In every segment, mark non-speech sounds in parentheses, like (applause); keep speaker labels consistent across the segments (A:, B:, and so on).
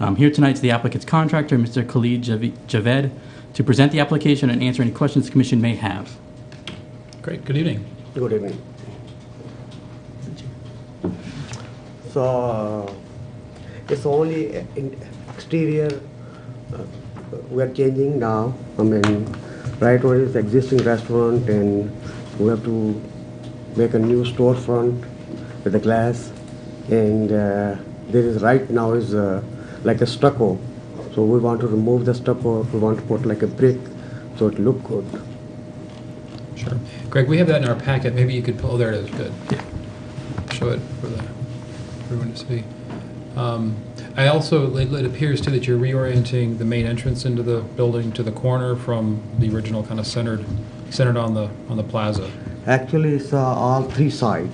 A: Um, Here tonight is the applicant's contractor, Mr. Khalid Jav- Javed, to present the application and answer any questions the commission may have.
B: Great, good evening.
C: Good evening. So, uh, it's only uh, in exterior uh, we are changing now. I mean, right now it's existing restaurant and we have to make a new storefront with the glass. And uh, there is, right now is uh, like a stucco. So we want to remove the stucco, we want to put like a brick, so it look good.
B: Sure. Greg, we have that in our packet. Maybe you could, oh, there it is, good. Show it for the, everyone to see. Um, I also, it it appears too that you're reorienting the main entrance into the building to the corner from the original kind of centered, centered on the, on the plaza.
C: Actually, it's uh, all three side.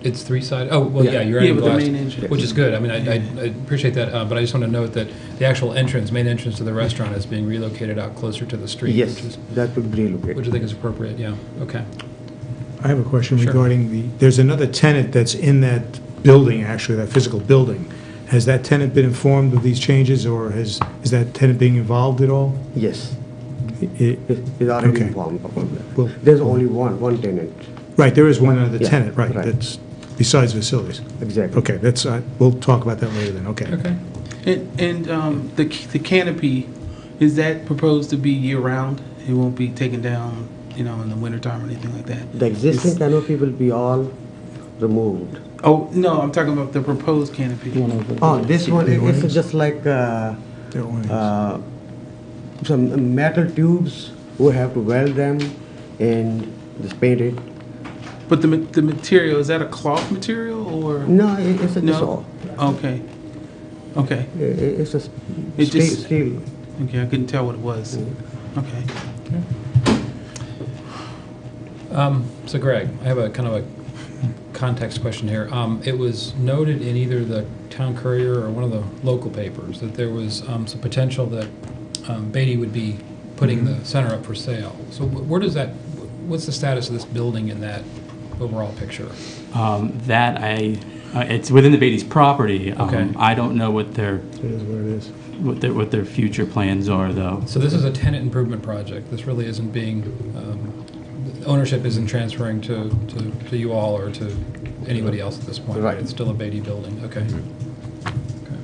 B: It's three sided. Oh, well, yeah,
C: Yeah.
B: you're
D: Yeah,
B: adding
D: with the
B: glass,
D: main entrance.
B: which is good. I mean, I, I, I appreciate that, uh, but I just want to note that the actual entrance, main entrance to the restaurant, is being relocated out closer to the street.
C: Yes,
B: which is-
C: that would be relocated.
B: Which I think is appropriate. Yeah. Okay.
D: I have a question
B: Sure.
D: regarding the, there's another tenant that's in that building, actually, that physical building. Has that tenant been informed of these changes, or has, is that tenant being involved at all?
C: Yes,
D: It-
C: it is already
D: Okay.
C: informed about that.
D: Well-
C: There's only one, one tenant,
D: Right, there is one other
C: Yeah,
D: tenant, right,
C: right.
D: that's besides facilities.
C: exactly.
D: Okay, that's, uh, we'll talk about that later then, okay.
B: Okay.
D: And,
E: And um, the the canopy, is that proposed to be year-round? It won't be taken down, you know, in the wintertime or anything like that?
C: The existing canopy will be all removed.
E: Oh, no, I'm talking about the proposed canopy.
C: Oh, this one, it- it's
D: Warnings?
C: just like uh,
D: There are warnings.
C: uh, some metal tubes, we have to weld them and just paint it.
E: But the ma- the material, is that a cloth material or?
C: No, Oh. it- it's a, it's all,
E: No? Okay. Okay,
C: i- i- it's a s-
E: It
C: steel,
E: just-
C: steel.
E: okay, I couldn't tell what it was. Okay.
B: Um, So Greg, I have a kind of a context question here. Um, It was noted in either the Town Courier or one of the local papers that there was um, some potential that um, Beatty would be putting the center up for sale. So wh- where does that, wh- what's the status of this building in that overall picture?
A: Um, That I, uh, it's within the Beatty's property. Um,
B: Okay.
A: I don't know what their,
D: It is what it is.
A: what their, what their future plans are, though.
B: So this is a tenant improvement project. This really isn't being, um, ownership isn't transferring to to to you all or to anybody else at this point.
C: Right.
B: It's still a Beatty building, okay. Okay.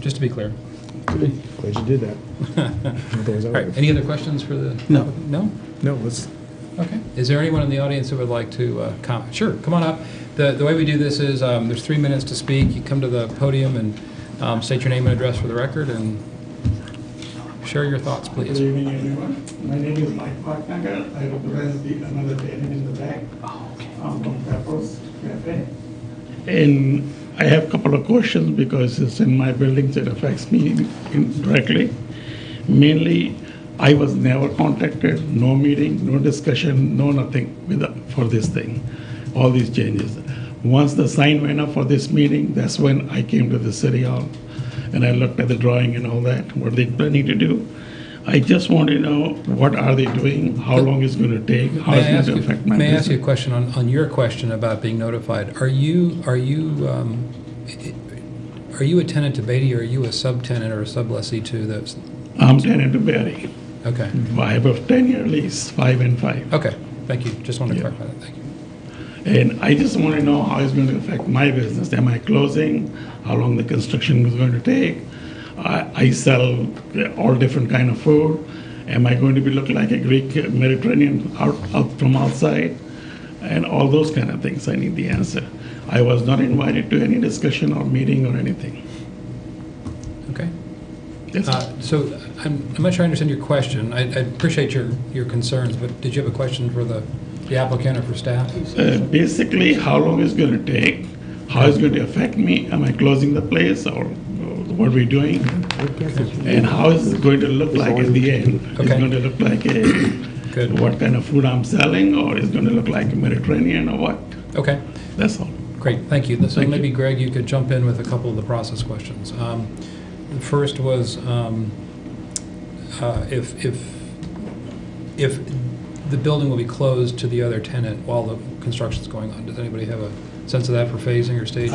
B: Just to be clear.
D: Glad you
C: (laughs)
D: did that. Otherwise I
B: All
D: would
B: right,
D: have-
B: any other questions for the?
E: No.
B: No?
D: No, let's,
B: Okay. Is there anyone in the audience who would like to uh, comment? Sure, come on up. The, the way we do this is, um, there's three minutes to speak. You come to the podium and um, state your name and address for the record and share your thoughts,
F: Good
B: please.
F: evening, everyone. My name is Mike Parknagar. I represent the another tenant in the back. I'm from Pepper's Cafe. And I have a couple of questions because it's in my buildings, it affects me directly. Mainly, I was never contacted, no meeting, no discussion, no nothing with, for this thing, all these changes. Once the sign went up for this meeting, that's when I came to the city hall and I looked at the drawing and all that, what they planning to do. I just want to know what are they doing, how long it's going to take, how
B: May I
F: it's
B: ask
F: going
B: you,
F: to affect my
B: may I ask you a
F: business.
B: question on, on your question about being notified? Are you, are you, um, i- i- are you a tenant to Beatty or are you a subtenant or a sublessee to those?
F: I'm tenant to Barry.
B: Okay,
F: I have a 10-year lease, five and five.
B: okay, thank you. Just wanted to
F: Yeah.
B: clarify that, thank you.
F: And I just want to know how it's going to affect my business. Am I closing? How long the construction is going to take? I, I sell all different kind of food. Am I going to be look like a Greek Mediterranean out, out from outside? And all those kind of things. I need the answer. I was not invited to any discussion or meeting or anything.
B: Okay.
F: That's all.
B: Uh, So I'm, I'm not sure I understand your question. I, I appreciate your, your concerns, but did you have a question for the the applicant or for staff?
F: Uh, basically, how long it's going to take, how it's going to affect me, am I closing the place or uh, what are we doing? And how is it going to look like at the end? It's
B: Okay.
F: going to look like a,
B: Good.
F: what kind of food I'm selling or it's going to look like Mediterranean or what?
B: Okay,
F: That's all.
B: great, thank you. So
F: Thank you.
B: maybe Greg, you could jump in with a couple of the process questions. Um, The first was um, uh, if, if, if the building will be closed to the other tenant while the construction's going on. Does anybody have a sense of that for phasing or staging?